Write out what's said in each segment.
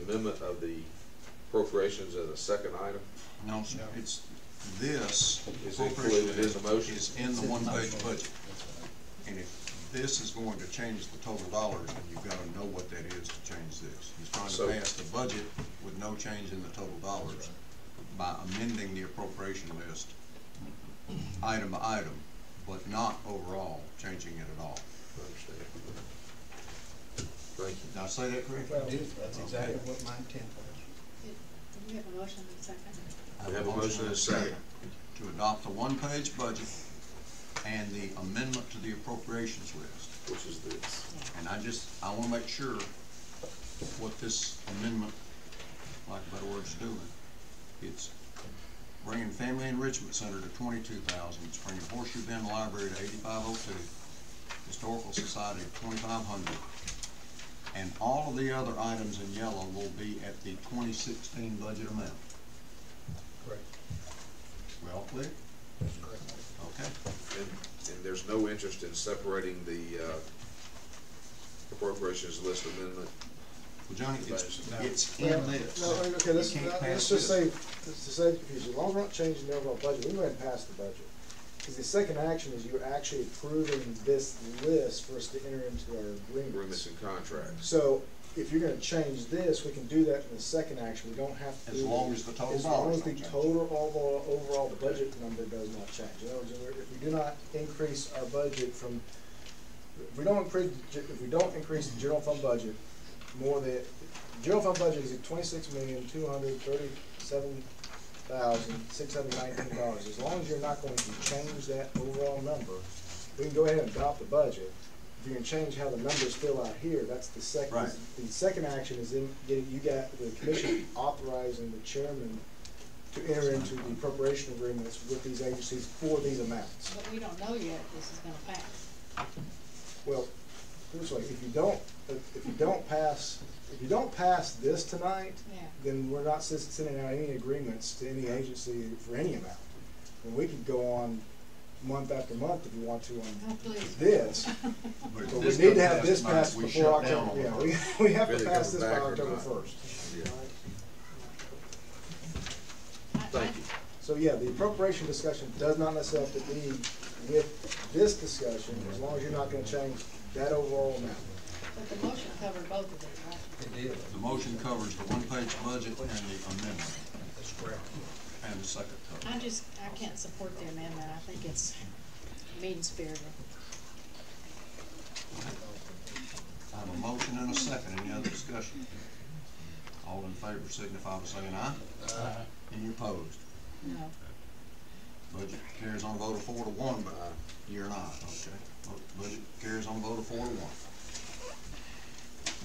amendment of the appropriations as a second item? No, sir, it's, this Is appropriation included in the motion? is in the one-page budget. And if this is going to change the total dollars, then you've gotta know what that is to change this. He's trying So- to pass the budget with no change in the total dollars by amending the appropriation list item by item, but not overall changing it at all. I understand. Thank you. Did I say that correctly? Well, that's exactly what my intent was. Do you have a motion in second? We have a motion and a second. To adopt the one-page budget and the amendment to the appropriations list. Which is this? And I just, I wanna make sure what this amendment, like better words doing, it's bringing Family Enrichment Center to twenty-two thousand, it's bringing Horseshoe Bend Library to eighty-five oh two, Historical Society to twenty-five hundred, and all of the other items in yellow will be at the twenty sixteen budget amount. Correct. We all clear? That's correct. Okay. And, and there's no interest in separating the, uh, appropriations list amendment? Well, Johnny, it's, No. it's Well, in this. No, okay, let's, You can't let's pass this. just say, to save confusion, as long as we're not changing the overall budget, we go ahead and pass the budget. Because the second action is you're actually approving this list for us to enter into our Agreements agreements. and contracts. So if you're gonna change this, we can do that in the second action, we don't have to. As do- long as the total As long dollars as the don't change. total overall, overall budget number does not change. In other words, if we're- if we do not increase our budget from, if we don't increase, if we don't increase the general fund budget more than, general fund budget is at twenty-six million, two hundred thirty-seven thousand, six hundred nineteen dollars. As long as you're not going to change that overall number, we can go ahead and adopt the budget. If you can change how the numbers fill out here, that's the second, Right. the second action is in, getting, you got the commission authorizing the chairman to enter into the appropriation agreements with these agencies for these amounts. But we don't know yet if this is gonna pass. Well, put it this way, if you don't, if you don't pass, if you don't pass this tonight, Yeah. then we're not s- sending out any agreements to any agency for any amount. And we could go on month after month if you want to Oh, on please. this, But but we this doesn't need to have this tonight. passed We before shut down October, on the yeah, first. we, we have to Whether it pass comes this by back or October not. first. Yeah. I- I- Thank you. So, yeah, the appropriation discussion does not necessarily have to be with this discussion, as long as you're not gonna change that overall amount. But the motion covered both of these, right? It did, The motion covers the one-page budget and the amendment, that's correct. and the second cover. I just, I can't support the amendment. I think it's mean spirited. I have a motion and a second, any other discussion? All in favor signify by saying aye. Uh, Any opposed? No. Budget carries on a vote of four to one, but Aye. you're not, okay? Bu- Budget carries on a vote of four to one.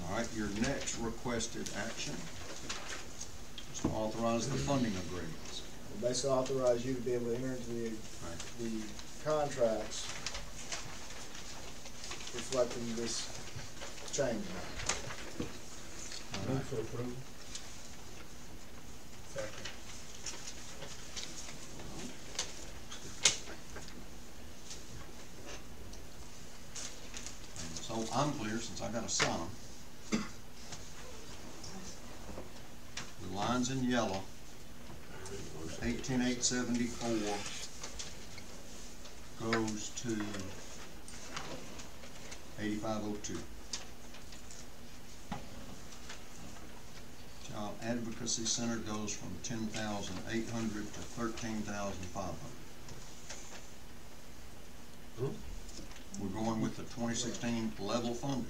All right, your next requested action is to authorize the funding agreements. We'll Basically authorize you to be able to enter into the, Right. the contracts reflecting this change. All right. move for approval. Second. So I'm clear since I got a sign. 'em. The lines in yellow, eighteen eight seventy-four goes to eighty-five oh two. Child Advocacy Center goes from ten thousand eight hundred to thirteen thousand five hundred. We're going with the twenty sixteen level funding,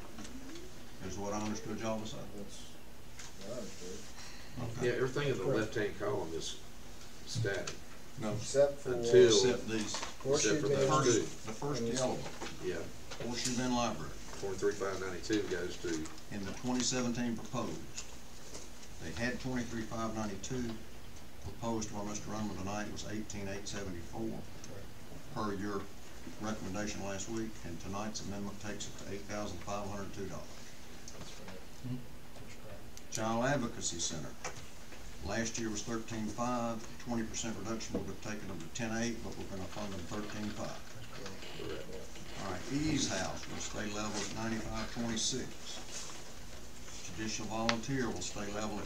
is what I understood y'all to say. That's, I understood. Okay. Yeah, everything in the left-hand column is static, No, Except for Until- except these, horseshoe except for the the bend, first, Understood. the first yellow, yeah. Horseshoe Bend Library, Twenty-three, five ninety-two goes to, in the twenty seventeen proposed. They had twenty-three five ninety-two, proposed by Mr. Runman tonight was eighteen eight seventy-four, per your recommendation last week, and tonight's amendment takes it to eight thousand five hundred two dollars. Child Advocacy Center. Last year was thirteen-five, twenty percent reduction would have taken them to ten-eight, but we're gonna fund them thirteen-five. All right, Ease House will stay level at ninety-five twenty-six. Judicial Volunteer will stay level at